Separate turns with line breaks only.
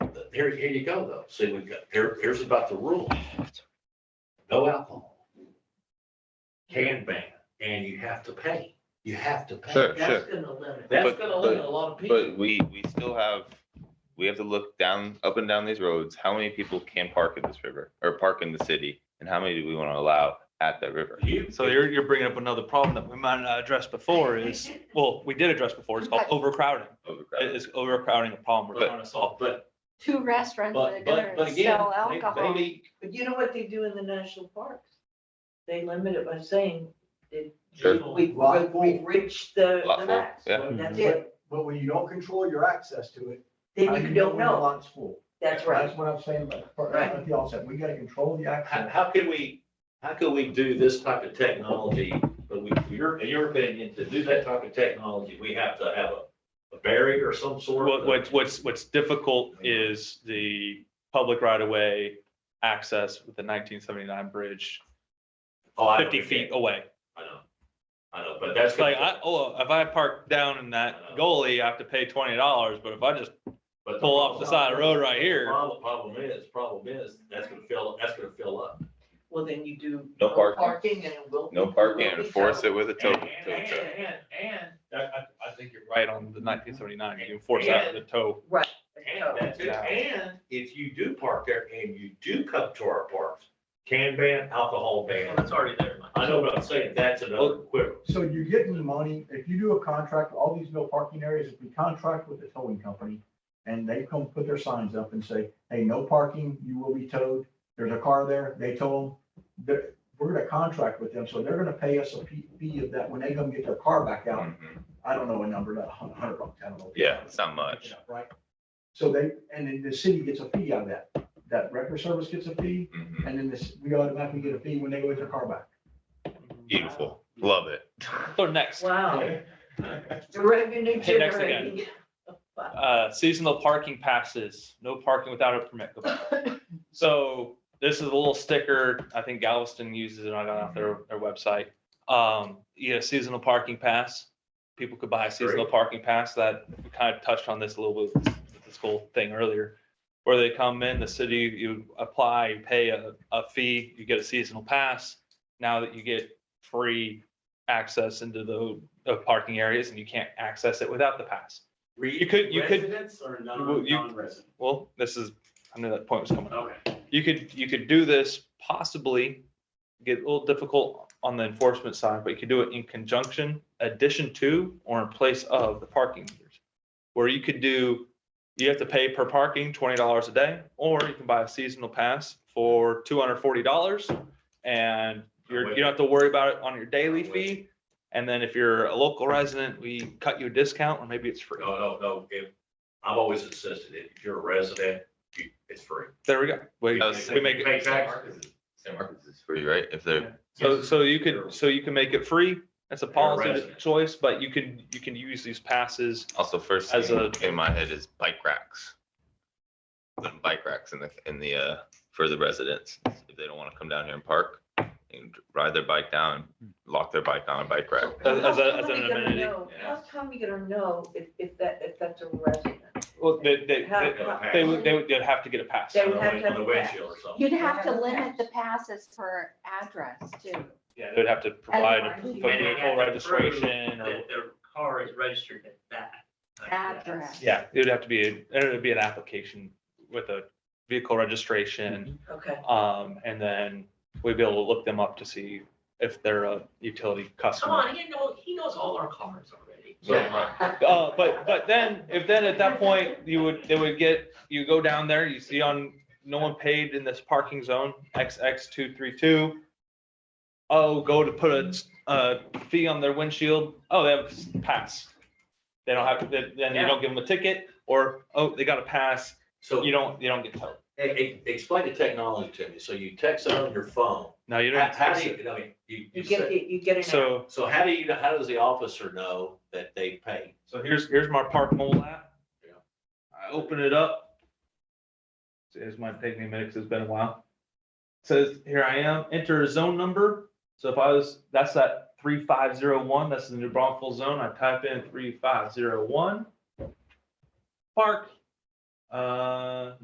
here, here you go though. See, we've got, here, here's about the rule. No alcohol. Can ban, and you have to pay. You have to pay.
Sure,
That's gonna limit.
That's
But-
gonna limit a lot of people.
But we, we still have, we have to look down, up and down these roads, how many people can park in this river or park in the city? And how many do we want to allow at that river?
You-
So you're, you're bringing up another problem that we might not address before is, well, we did address before, it's called overcrowding.
Overcrowding.
Is overcrowding a problem we're
But-
trying to solve?
But,
two restaurants
but,
that
but,
are
but
gonna
again,
sell
may-
alcohol.
maybe
But you know what they do in the national parks? They limit it by saying
Sure.
legal-
we've,
Lot Mm-hmm. full.
we've reached the, the
Lot full,
max.
yeah.
That's
But-
it.
But when you don't control your access to it.
Then
how
you don't
when the
know.
Lot's full.
That's right.
That's what I'm saying, but for,
Right.
at the outset, we gotta control the
How,
access.
how could we, how could we do this type of technology, but we, your, in your opinion, to do that type of technology, we have to have a, a barrier or some sort?
What, what's, what's, what's difficult is the public right of way access with the nineteen seventy-nine bridge
Oh, I know,
fifty feet away.
I know, I know, but that's.
Like, I, oh, if I park down in that goalie, I have to pay twenty dollars, but if I just
but
pull off the side of the road right
The
here,
Problem, problem is, problem is, that's gonna fill, that's gonna fill up.
Well, then you do.
No parking.
Parking and we'll.
No parking and enforce it with a tow.
And,
tow
and,
truck.
and, and,
I, I, I think you're right on the nineteen seventy-nine, you enforce that with the tow.
Right.
and that's it. And if you do park there and you do come to our parks, can ban, alcohol ban. That's already there. I know what I'm saying, that's another quibble.
So you're getting the money, if you do a contract, all these no parking areas, if we contract with the towing company and they come put their signs up and say, hey, no parking, you will be towed, there's a car there, they tow them. They're, we're gonna contract with them, so they're gonna pay us a fee- fee of that when they come get their car back out.
Mhm.
I don't know a number, not a hun- hundred bucks, I don't know.
Yeah, it's not much.
Right? So they, and then the city gets a fee out of that. That record service gets a fee,
Mhm.
and then this, we automatically get a fee when they go get their car back.
Beautiful. Love it.
So next,
Wow, the revenue
Hey, next again.
generating.
uh, seasonal parking passes, no parking without a permit. Go back. So this is a little sticker, I think Galveston uses it on on their, their website. Um, you know, seasonal parking pass, people could buy a seasonal parking pass that we kind of touched on this a little bit, with this whole thing earlier. Where they come in, the city, you apply, you pay a, a fee, you get a seasonal pass. Now that you get free access into the, the parking areas and you can't access it without the pass. You could- you could-
Residents or
Well,
non,
you-
non-residents?
Well, this is, I knew that point was coming up.
Okay.
You could, you could do this possibly, get a little difficult on the enforcement side, but you could do it in conjunction, addition to, or in place of the parking meters. Where you could do, you have to pay per parking twenty dollars a day, or you can buy a seasonal pass for two hundred forty dollars. And you're, you don't have to worry about it on your daily fee. And then if you're a local resident, we cut you a discount, or maybe it's free.
No, no, no, if, I've always insisted, if you're a resident, you, it's free.
There we go. We, we make it.
Pay taxes.
San Marcos is free, right? If they're,
So,
Yes.
so you could, so you can make it free, that's a
a
policy
resident.
choice, but you can, you can use these passes.
also first
As
thing
a-
in my head is bike racks. Putting Bike racks in the, in the, uh, for the residents, if they don't want to come down here and park and ride their bike down, lock their bike on a bike rack.
As- as a-
How
as
come
an
we gonna
amenity,
know-
yeah.
How's Tommy gonna know if, if that, if that's a resident?
Well, they, they,
How-
they-
how-
they would, they would they'd have to get a pass.
They
On
would
the
have to
win- on the
have a
windshield or something.
You'd have to limit the passes per address too.
Yeah, they'd have to provide a
And-
full registration or,
That their car is registered at that.
Address.
yeah, it would have to be, a- it would be an application with a vehicle registration.
Okay,
Um, and then we'd be able to look them up to see if they're a utility
Come
customer.
on, he knows, he knows all our cars already.
So,
Uh, but, but then, if then at that point, you would, they would get, you go down there, you see on, no one paid in this parking zone, XX two three two. Oh, go to put a, a fee on their windshield, oh, they have a s- pass. They don't have, to. then then you don't give them a ticket, or, oh, they got a pass,
So,
you don't, you don't get towed.
e- e- explain the technology to me. So you text it on your phone.
No, you
How
don't.
how do you, I mean, you,
you
you
get,
said,
it- you get it.
So,
so how do you, know- how does the officer know that they paid?
So here's, here's my Park Mole app.
Yeah.
I open it up. It's my take me a minute, 'cause it's been a while. Says, here I am, enter a zone number. So if I was, that's that three five zero one, that's the New Braunfels zone. I type in three five zero one. Park, uh,